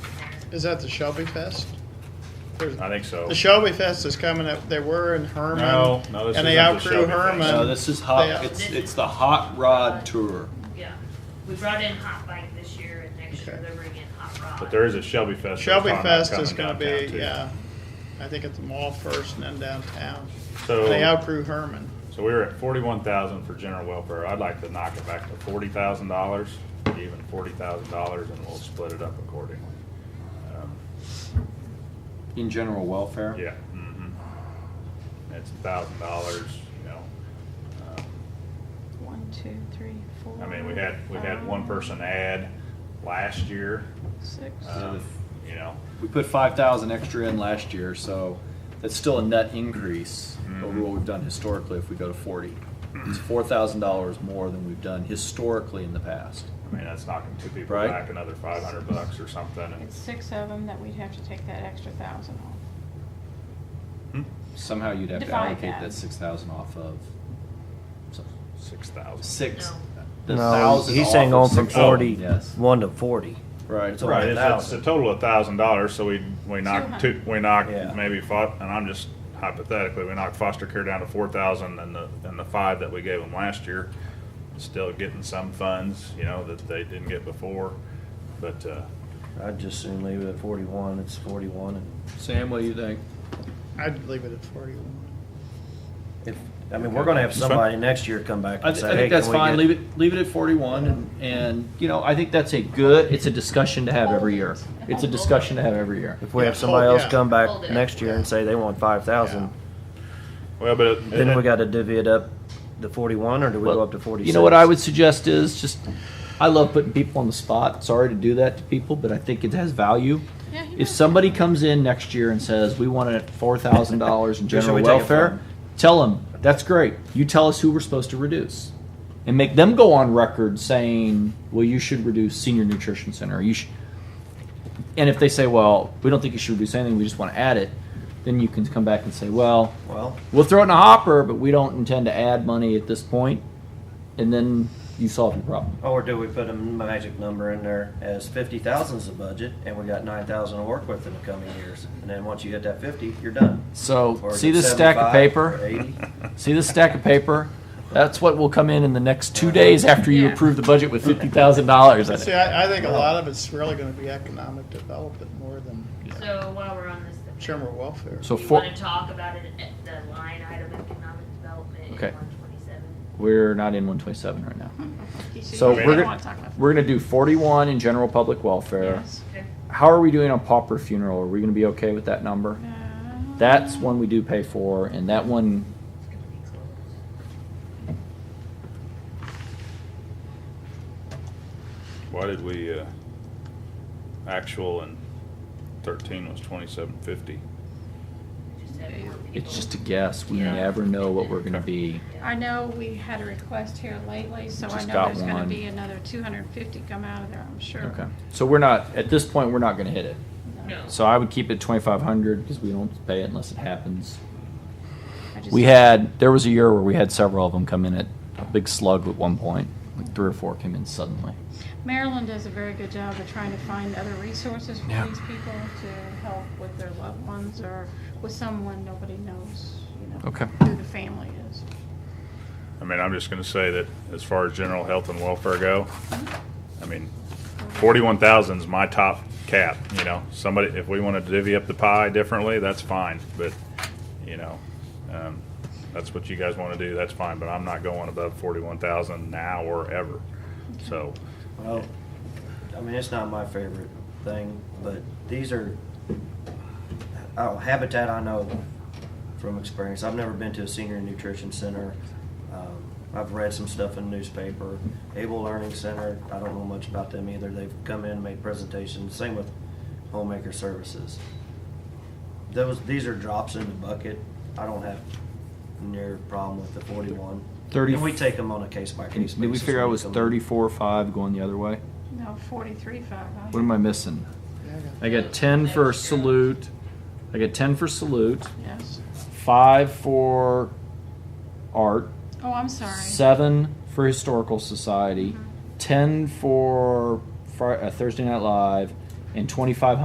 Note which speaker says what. Speaker 1: Is that the Shelby Fest? There's-
Speaker 2: I think so.
Speaker 1: The Shelby Fest is coming up. They were in Herman.
Speaker 2: No, no, this
Speaker 1: And they
Speaker 2: isn't the
Speaker 1: outgrew
Speaker 2: Shelby Fest.
Speaker 1: Herman.
Speaker 3: No, this is hot,
Speaker 1: They-
Speaker 3: it's, it's the hot rod tour.
Speaker 4: Yeah, we brought in hot bike this year and next year
Speaker 1: Okay.
Speaker 4: they're bringing hot rod.
Speaker 2: But there is a Shelby Fest.
Speaker 1: Shelby
Speaker 2: that's
Speaker 1: Fest
Speaker 2: coming
Speaker 1: is gonna be,
Speaker 2: downtown, too.
Speaker 1: yeah, I think at the mall first and then downtown.
Speaker 2: So-
Speaker 1: They outgrew Herman.
Speaker 2: So we were at forty-one thousand for general welfare. I'd like to knock it back to forty thousand dollars, even forty thousand dollars, and we'll split it up accordingly. Um,
Speaker 3: In general welfare?
Speaker 2: Yeah. mhm. It's a thousand dollars, you know. Um,
Speaker 5: One, two, three, four.
Speaker 2: I mean, we had, we had one person add last year,
Speaker 5: Six.
Speaker 2: um, you know.
Speaker 3: We put five thousand extra in last year, so that's still a net increase over
Speaker 2: Mm-hmm.
Speaker 3: what we've done historically if we go to forty. It's four thousand dollars more than we've done historically in the past.
Speaker 2: I mean, that's knocking two people
Speaker 3: Right.
Speaker 2: back another five hundred bucks or something.
Speaker 3: Um,
Speaker 2: and-
Speaker 5: It's six of them that we'd have to take that extra thousand off.
Speaker 2: Hmm?
Speaker 3: Somehow you'd have to
Speaker 5: Divide
Speaker 3: allocate
Speaker 5: that.
Speaker 3: that six thousand off of, so,
Speaker 2: Six thousand.
Speaker 3: six.
Speaker 4: No.
Speaker 3: the
Speaker 6: No,
Speaker 3: 1,000
Speaker 6: he's
Speaker 3: off
Speaker 6: saying
Speaker 3: of
Speaker 6: going from
Speaker 3: 6,000.
Speaker 6: forty,
Speaker 3: Yes,
Speaker 6: one to forty.
Speaker 3: right,
Speaker 6: It's
Speaker 2: Right,
Speaker 3: right.
Speaker 2: it's, it's a total of thousand dollars, so we, we knocked two, we knocked
Speaker 3: Yeah.
Speaker 2: maybe fo- and I'm just hypothetically, we knocked foster care down to four thousand and the, and the five that we gave them last year. Still getting some funds, you know, that they didn't get before, but, uh,
Speaker 6: I'd just soon leave it at forty-one, it's forty-one, and
Speaker 3: Sam, what do you think?
Speaker 1: I'd leave it at forty-one.
Speaker 6: if, I mean, we're gonna have
Speaker 2: That's fine.
Speaker 6: somebody next year come back
Speaker 3: I, th-
Speaker 6: and say,
Speaker 3: I
Speaker 6: hey,
Speaker 3: think that's
Speaker 6: can we
Speaker 3: fine.
Speaker 6: get-
Speaker 3: Leave it leave it at 41, and, and you know I think that's a good. It's a discussion to have every year. It's a discussion to have every year.
Speaker 6: If we
Speaker 1: Yeah,
Speaker 6: have somebody
Speaker 1: hold-
Speaker 6: else
Speaker 1: yeah.
Speaker 6: come
Speaker 4: Hold
Speaker 6: back
Speaker 4: it.
Speaker 6: next year and say they want five thousand,
Speaker 2: well, but. it-
Speaker 6: then we gotta divvy it up to forty-one, or do we go
Speaker 3: Well,
Speaker 6: up to forty-six?
Speaker 3: You know what I would suggest is just. I love putting people on the spot. Sorry to do that to people, but I think it has value.
Speaker 5: Yeah, he
Speaker 3: If
Speaker 5: knows.
Speaker 3: somebody comes in next year and says we want it four thousand dollars in
Speaker 6: Who should
Speaker 3: general
Speaker 6: we take it
Speaker 3: welfare,
Speaker 6: from?
Speaker 3: tell them that's great. You tell us who we're supposed to reduce, and make them go on record saying, "Well, you should reduce senior nutrition center. You should." And if they say, "Well, we don't think you should reduce anything. We just want to add it," then you can come back and say, "Well,
Speaker 6: Well,
Speaker 3: we'll throw it in a hopper, but we don't intend to add money at this point," and then you solve your problem.
Speaker 6: or do we put a magic number in there as fifty thousand's the budget, and we got nine thousand to work with in the coming years, and then once you hit that fifty, you're done.
Speaker 3: So
Speaker 6: Or is
Speaker 3: see
Speaker 6: it
Speaker 3: this stack of
Speaker 6: 75
Speaker 3: paper.
Speaker 6: or 80?
Speaker 3: See this stack of paper? That's what will come in in the next two days after you
Speaker 4: Yeah.
Speaker 3: approve the budget with fifty thousand dollars in
Speaker 1: See,
Speaker 3: it.
Speaker 1: I, I think a lot of it's really gonna be economic development more than
Speaker 4: So while we're on this, the-
Speaker 1: general welfare.
Speaker 3: So
Speaker 4: do you
Speaker 3: for,
Speaker 4: wanna talk about it at the line item economic development in
Speaker 3: Okay.
Speaker 4: one twenty-seven?
Speaker 3: we're not in one twenty-seven right now.
Speaker 5: He should-
Speaker 3: So
Speaker 5: he
Speaker 2: we're
Speaker 5: don't
Speaker 2: gonna-
Speaker 5: wanna talk about that.
Speaker 3: We're gonna do forty-one in general public welfare.
Speaker 5: Yes.
Speaker 4: Okay.
Speaker 3: How are we doing on pauper funeral? Are we gonna be okay with that number?
Speaker 5: Uh,
Speaker 3: That's one we do pay for, and that one,
Speaker 4: It's gonna be close.
Speaker 2: Why did we, uh, actual and thirteen was twenty-seven fifty?
Speaker 4: We just have more people.
Speaker 3: it's just a guess. We
Speaker 4: Yeah.
Speaker 3: never know what we're gonna be.
Speaker 5: I know we had a request here lately, so I
Speaker 3: Just
Speaker 5: know
Speaker 3: got
Speaker 5: there's gonna
Speaker 3: one.
Speaker 5: be another two hundred and fifty come out of there, I'm sure.
Speaker 3: Okay, so we're not, at this point, we're not gonna hit it.
Speaker 4: No.
Speaker 3: So I would keep it twenty-five hundred, because we don't pay it unless it happens.
Speaker 5: I just-
Speaker 3: We had, there was a year where we had several of them come in at a big slug at one point. Like three or four came in suddenly.
Speaker 5: Maryland does a very good job of trying to find other resources for
Speaker 3: Yeah.
Speaker 5: these people to help with their loved ones or with someone nobody knows, you know,
Speaker 3: Okay.
Speaker 5: who the family is.
Speaker 2: I mean, I'm just gonna say that as far as general health and welfare go,
Speaker 3: Mm-hmm.
Speaker 2: I mean, forty-one thousand's my top cap, you know, somebody, if we wanna divvy up the pie differently, that's fine, but, you know, um, that's what you guys wanna do, that's fine, but I'm not going above forty-one thousand now or ever, so,
Speaker 6: Well, I mean, it's not my favorite thing, but these are, oh, Habitat I know from experience. I've never been to a senior nutrition center. Um, I've read some stuff in the newspaper. Able Learning Center, I don't know much about them either. They've come in, made presentations, same with Homemaker Services. Those, these are drops in the bucket. I don't have near problem with the forty-one.
Speaker 3: Thirty-
Speaker 6: And we take them on a case by case basis.
Speaker 3: Did we figure out it
Speaker 6: when
Speaker 3: was
Speaker 6: come in.
Speaker 3: thirty-four, five going the other way?
Speaker 5: No, forty-three five.
Speaker 3: What am I missing?
Speaker 1: Yeah, I
Speaker 3: I got ten for salute. I got ten for salute,
Speaker 5: Yes.
Speaker 3: five for art,
Speaker 5: Oh, I'm sorry.
Speaker 3: seven for historical society,
Speaker 5: Mhm.
Speaker 3: ten for Fri- uh, Thursday Night Live, and twenty-five